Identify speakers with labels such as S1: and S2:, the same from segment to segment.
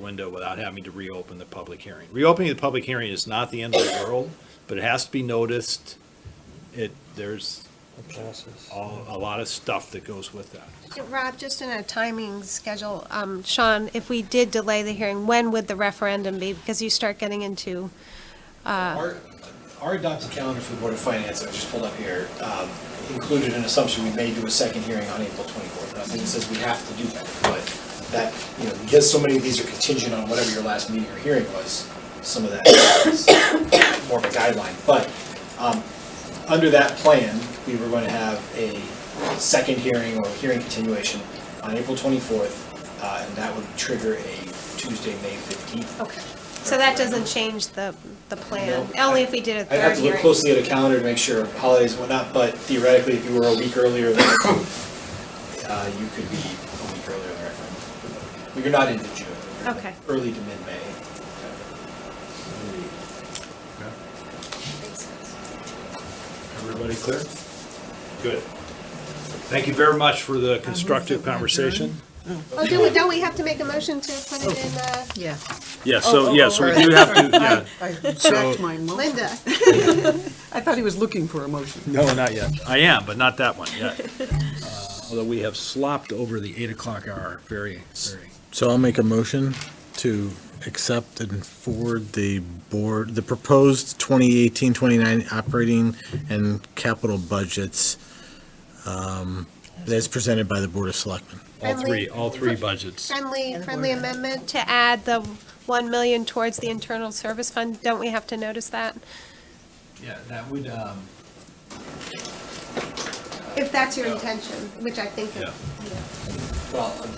S1: window without having to reopen the public hearing. Reopening the public hearing is not the end of the world, but it has to be noticed. It, there's
S2: Passes.
S1: all, a lot of stuff that goes with that.
S3: Yeah, Rob, just in a timing schedule, um, Sean, if we did delay the hearing, when would the referendum be? Because you start getting into,
S4: Our, our adopted calendar for the Board of Finance, I just pulled up here, um, included an assumption we may do a second hearing on April 24th. Now, it says we have to do that, but that, you know, because so many of these are contingent on whatever your last meeting or hearing was, some of that is more of a guideline. But um, under that plan, we were going to have a second hearing or hearing continuation on April 24th, uh, and that would trigger a Tuesday, May 15th.
S3: okay. So that doesn't change the, the plan,
S4: No.
S3: only if we did a
S4: I'd have
S3: third
S4: to look
S3: hearing.
S4: closely at a calendar to make sure holidays and whatnot, but theoretically, if you were a week earlier, then, uh, you could be a week earlier than referendum. But You're not into June. you're
S3: Okay.
S4: Early to mid-May.
S1: Everybody clear? Good. Thank you very much for the constructive conversation.
S3: Oh, do we, don't we have to make a motion to put it in, uh,
S5: Yeah.
S1: Yes,
S5: so- Oh, oh, yeah, so we oh, do
S1: have to, yeah.
S5: I backed my motion.
S3: Linda?
S5: I thought he was looking for a motion.
S1: No, not yet. I am, but not that one yet. Uh, Although we have slopped over the eight o'clock hour very, very.
S6: So I'll make a motion to accept and forward the board, the proposed 2018, 29 operating and capital budgets um, that's presented by the Board of Selectmen.
S1: All three, all three budgets.
S3: Friendly, friendly amendment to add the 1 million towards the internal service fund, don't we have to notice that?
S4: Yeah, that would, um.
S3: If that's your intention, which I think
S1: Yeah.
S4: Well, um,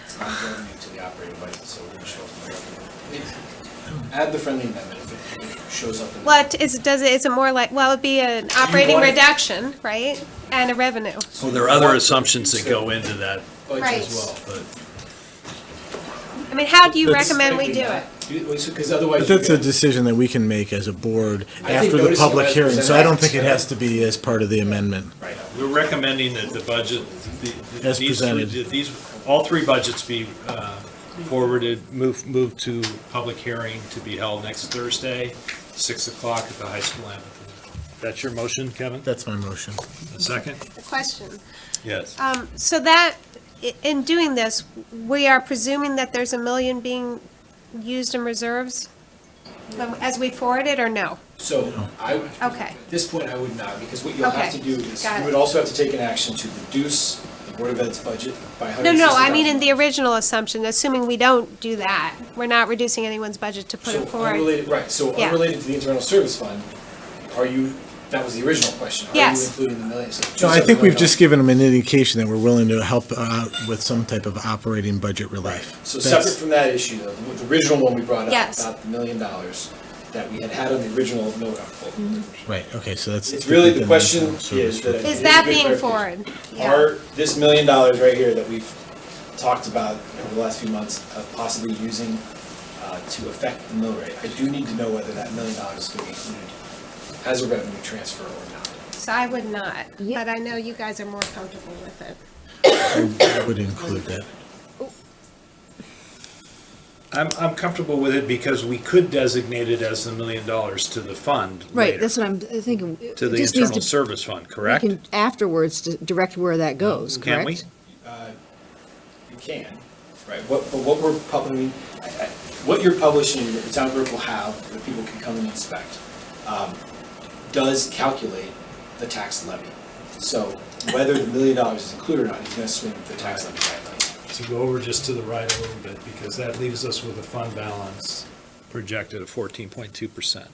S4: it's not going into the operating budget, so we're gonna show up. in the revenue. Add the friendly amendment if it- if it shows up in. the-
S3: What is, does it, is it more like, well, it'd be an operating
S4: want it-
S3: reduction, right? And a revenue.
S1: So there are other assumptions that go into that
S4: Budget
S3: Right.
S4: as well.
S1: but
S3: I mean, how do you
S1: It's-
S3: recommend we
S4: Maybe
S3: do
S4: not.
S3: it?
S4: Because otherwise.
S6: But
S4: you
S6: that's a
S4: get-
S6: decision that we can make as a board
S4: I think
S6: after the
S4: noticing
S6: public
S4: that
S6: hearing, so I don't think it
S4: presented-
S6: has to be as part of the amendment.
S4: Right.
S1: we're recommending that the budget, the- the-
S6: As
S1: these three,
S6: presented.
S1: these, all three budgets be uh, forwarded, moved, moved to public hearing to be held next Thursday, 6 o'clock at the high school amphitheater. That's your motion, Kevin?
S6: That's my motion.
S1: A second?
S3: The question.
S1: Yes.
S3: Um, So that, i- in doing this, we are presuming that there's a million being used in reserves um, as we forward it, or no?
S4: So I,
S3: Okay.
S4: at this point, I would not, because what you'll have
S3: Okay.
S4: to do is,
S3: Got
S4: you
S3: it.
S4: would also have to take an action to reduce the Board of Ed's budget by
S3: No,
S4: hundred and sixty
S3: no,
S4: thousand.
S3: I mean in the original assumption, assuming we don't do that, we're not reducing anyone's budget to put it
S4: So
S3: forward.
S4: unrelated, right, so
S3: Yeah.
S4: unrelated to the internal service fund, are you, that was the original question. Are you
S3: Yes.
S4: including the million? So
S6: No, I
S4: two
S6: think we've
S4: separate million
S6: just given them an indication that we're willing to help out with some type of operating budget
S4: dollars.
S6: relief.
S4: So
S6: That's-
S4: separate from that issue, though, the original one we brought up,
S3: Yes.
S4: about the million dollars that we had had on the original note article.
S6: Right, okay, so that's.
S4: It's really, the
S6: different
S4: question
S6: than the service
S4: is that.
S3: Is
S4: it
S3: that
S4: a good
S3: being
S4: clarification.
S3: forward? Yeah.
S4: Are, this million dollars right here that we've talked about over the last few months of possibly using uh, to affect the mill rate, I do need to know whether that million dollars is going to be included as a revenue transfer or not.
S3: So I would not, but I know you guys are more comfortable with it.
S6: I Would include that.
S1: I'm, I'm comfortable with it because we could designate it as the million dollars to the fund
S7: Right,
S1: later,
S7: that's what I'm thinking. It
S1: to the
S7: just needs
S1: internal
S7: to-
S1: service fund,
S7: we
S1: correct?
S7: can Afterwards, di- direct where that goes, correct?
S1: Can we?
S4: You can, right, what, but what we're publishing, I- I- what you're publishing, that the town clerk will have, that people can come and inspect, um, does calculate the tax levy. So whether the million dollars is included or not, he's going to swing the tax levy guideline.
S1: to go over just to the right a little bit, because that leaves us with a fund balance projected of fourteen point two percent.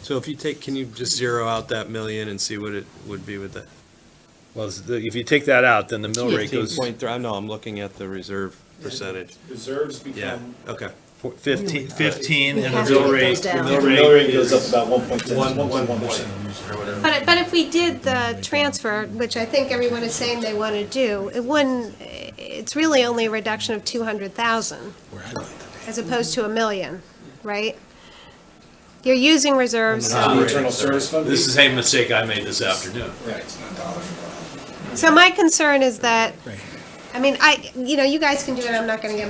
S8: So if you take, can you just zero out that million and see what it would be with that?
S1: Well, it's the- if you take that out, then the mill rate
S8: Fifteen
S1: goes
S8: point three, no, I'm looking at the reserve percentage.
S4: Reserves
S8: Yeah,
S4: become
S8: okay.
S1: fo- fifteen, fifteen,
S7: We
S1: and the
S7: have to
S1: mill
S7: get
S1: rate,
S7: those
S1: the
S7: down.
S1: mill
S4: The mill
S1: rate
S4: rate goes up
S1: is.
S4: about one point ten.
S3: But, but if we did the transfer, which I think everyone is saying they want to do, it wouldn't, it's really only a reduction of 200,000 as opposed to a million, right? You're using reserves,
S4: The
S3: so,
S4: internal service fund.
S1: This is a mistake I made this afternoon.
S4: Right.
S3: so my concern is that, I mean, I, you know, you guys can do it, I'm not going to get